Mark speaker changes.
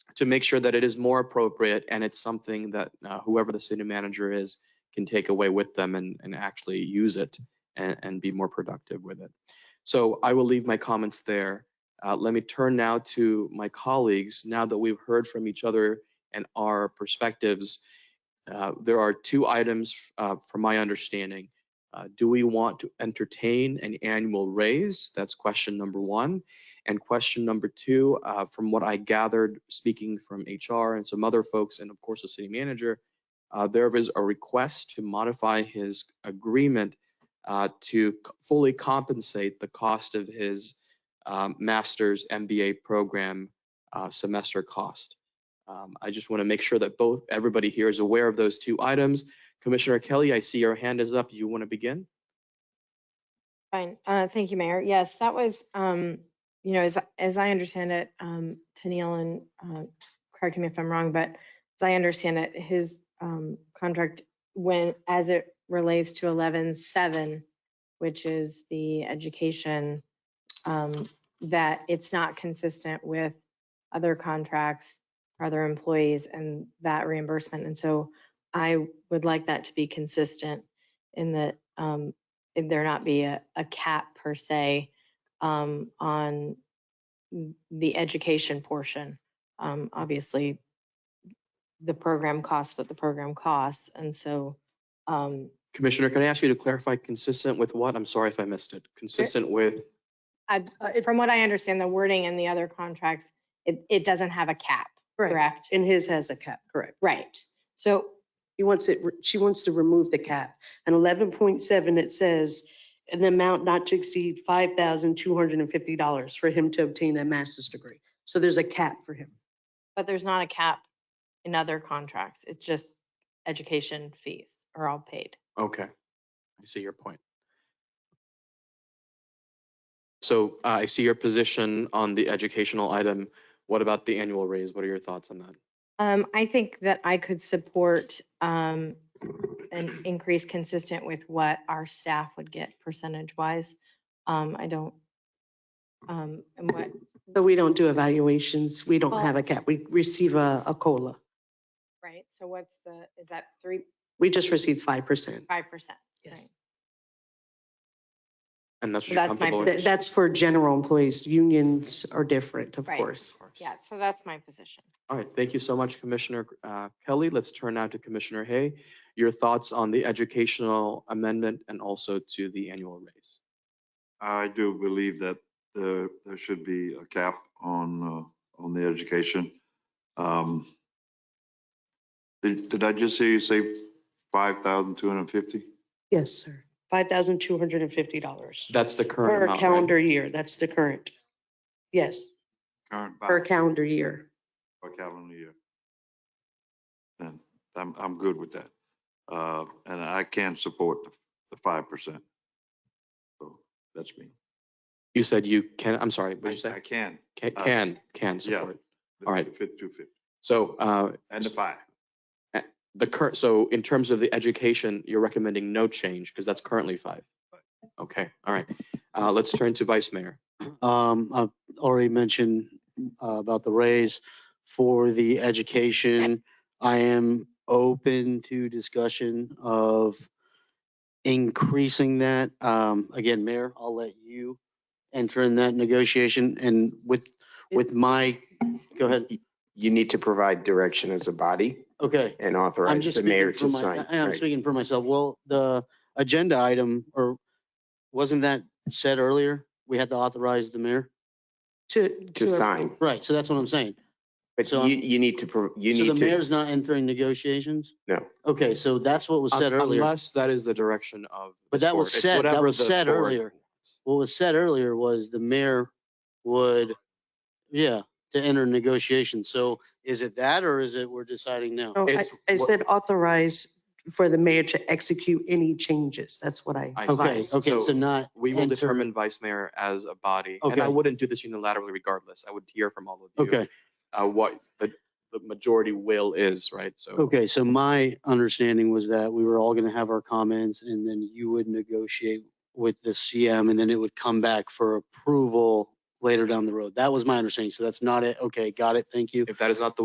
Speaker 1: to make sure that it is more appropriate and it's something that uh, whoever the city manager is can take away with them and, and actually use it and, and be more productive with it. So I will leave my comments there. Uh, let me turn now to my colleagues. Now that we've heard from each other and our perspectives, uh, there are two items uh, from my understanding. Uh, do we want to entertain an annual raise? That's question number one. And question number two, uh, from what I gathered, speaking from HR and some other folks, and of course the city manager, uh, there is a request to modify his agreement uh, to c- fully compensate the cost of his um, master's MBA program uh, semester cost. Um, I just want to make sure that both everybody here is aware of those two items. Commissioner Kelly, I see your hand is up. You want to begin?
Speaker 2: Fine. Uh, Thank you, Mayor. Yes, that was, um, you know, as, as I understand it, um, Tennille and, uh, correct me if I'm wrong, but as I understand it, his um, contract when, as it relates to 11-7, which is the education, um, that it's not consistent with other contracts, for other employees and that reimbursement. And so I would like that to be consistent in that um, if there not be a, a cap per se um, on the education portion. Um, obviously, the program costs what the program costs, and so um,
Speaker 1: Commissioner, can I ask you to clarify consistent with what? I'm sorry if I missed it. Consistent with,
Speaker 2: I, from what I understand, the wording in the other contracts, it, it doesn't have a cap,
Speaker 3: Right,
Speaker 2: correct?
Speaker 3: and his has a cap, correct.
Speaker 2: Right. So
Speaker 3: He wants it, she wants to remove the cap. And eleven point seven, it says an amount not to exceed five thousand two hundred and fifty dollars for him to obtain a master's degree. So there's a cap for him.
Speaker 2: But there's not a cap in other contracts. It's just education fees are all paid.
Speaker 1: okay, I see your point. So uh, I see your position on the educational item. What about the annual raise? What are your thoughts on that?
Speaker 2: Um, I think that I could support, um, an increase consistent with what our staff would get percentage wise. Um, I don't, um, and what,
Speaker 3: But we don't do evaluations. We don't
Speaker 2: Well-
Speaker 3: have a cap. We receive a, a COLA.
Speaker 2: right? So what's the, is that three,
Speaker 3: We just receive five percent.
Speaker 2: five percent?
Speaker 3: Yes.
Speaker 1: And that's what you're
Speaker 2: That's my
Speaker 1: comfortable with?
Speaker 3: That- That's for general employees. Unions are different, of
Speaker 2: Right.
Speaker 3: course.
Speaker 2: Yeah, so that's my position.
Speaker 1: All right, thank you so much, Commissioner uh, Kelly. Let's turn now to Commissioner Hay. Your thoughts on the educational amendment and also to the annual raise.
Speaker 4: I do believe that there, there should be a cap on, uh, on the education. Um, Did, did I just hear you say five thousand two hundred and fifty?
Speaker 3: Yes, sir. Five thousand two hundred and fifty dollars
Speaker 1: That's the current
Speaker 3: per
Speaker 1: amount. right?
Speaker 3: calendar year. That's the current. Yes,
Speaker 4: Current
Speaker 3: per
Speaker 4: balance
Speaker 3: calendar year.
Speaker 4: per calendar year. Then I'm, I'm good with that. Uh, and I can support the, the five percent. So that's me.
Speaker 1: You said you can, I'm sorry, what did you
Speaker 4: I
Speaker 1: say?
Speaker 4: can.
Speaker 1: Ca-
Speaker 4: uh,
Speaker 1: Can, can
Speaker 4: yeah.
Speaker 1: support. All right.
Speaker 4: Fit two fifty
Speaker 1: So uh,
Speaker 4: and the five.
Speaker 1: the current, so in terms of the education, you're recommending no change because that's currently five. Okay, all right. Uh, Let's turn to Vice Mayor.
Speaker 5: Um, I've already mentioned uh, about the raise for the education. I am open to discussion of increasing that. Um, again, Mayor, I'll let you enter in that negotiation and with, with my, go ahead.
Speaker 6: you need to provide direction as a body
Speaker 5: Okay.
Speaker 6: and
Speaker 5: I'm
Speaker 6: authorize
Speaker 5: just
Speaker 6: the mayor to
Speaker 5: speaking for my-
Speaker 6: sign.
Speaker 5: I- I'm
Speaker 6: Right.
Speaker 5: speaking for myself. Well, the agenda item, or wasn't that said earlier? We had to authorize the mayor?
Speaker 3: To.
Speaker 6: To sign,
Speaker 5: Right, so that's what I'm saying.
Speaker 6: but
Speaker 5: So
Speaker 6: you, you need to, pro- you
Speaker 5: So the
Speaker 6: need to,
Speaker 5: mayor's not entering negotiations?
Speaker 6: No.
Speaker 5: Okay, so that's what was
Speaker 1: Un-
Speaker 5: said earlier.
Speaker 1: Unless that is the direction of. the
Speaker 5: But that was
Speaker 1: board. It's
Speaker 5: said- that
Speaker 1: whatever
Speaker 5: was
Speaker 1: the
Speaker 5: said
Speaker 1: board
Speaker 5: earlier.
Speaker 1: wants.
Speaker 5: What was said earlier was the mayor would, yeah, to enter negotiations. So is it that or is it we're deciding now?
Speaker 3: No, I
Speaker 1: It's
Speaker 3: I
Speaker 1: what-
Speaker 3: said authorize for the mayor to execute any changes. That's what I.
Speaker 1: I see.
Speaker 5: Okay,
Speaker 3: advised.
Speaker 5: okay,
Speaker 1: So-
Speaker 5: so not,
Speaker 1: We will
Speaker 5: Enter-
Speaker 1: determine vice mayor as a body, and I
Speaker 5: Okay.
Speaker 1: wouldn't do this unilaterally regardless. I would hear from all of you.
Speaker 5: okay,
Speaker 1: Uh, what the, the majority will is, right? So,
Speaker 5: okay. So my understanding was that we were all going to have our comments and then you would negotiate with the CM and then it would come back for approval later down the road. That was my understanding. So that's not it. Okay, got it. Thank you.
Speaker 1: if that is not the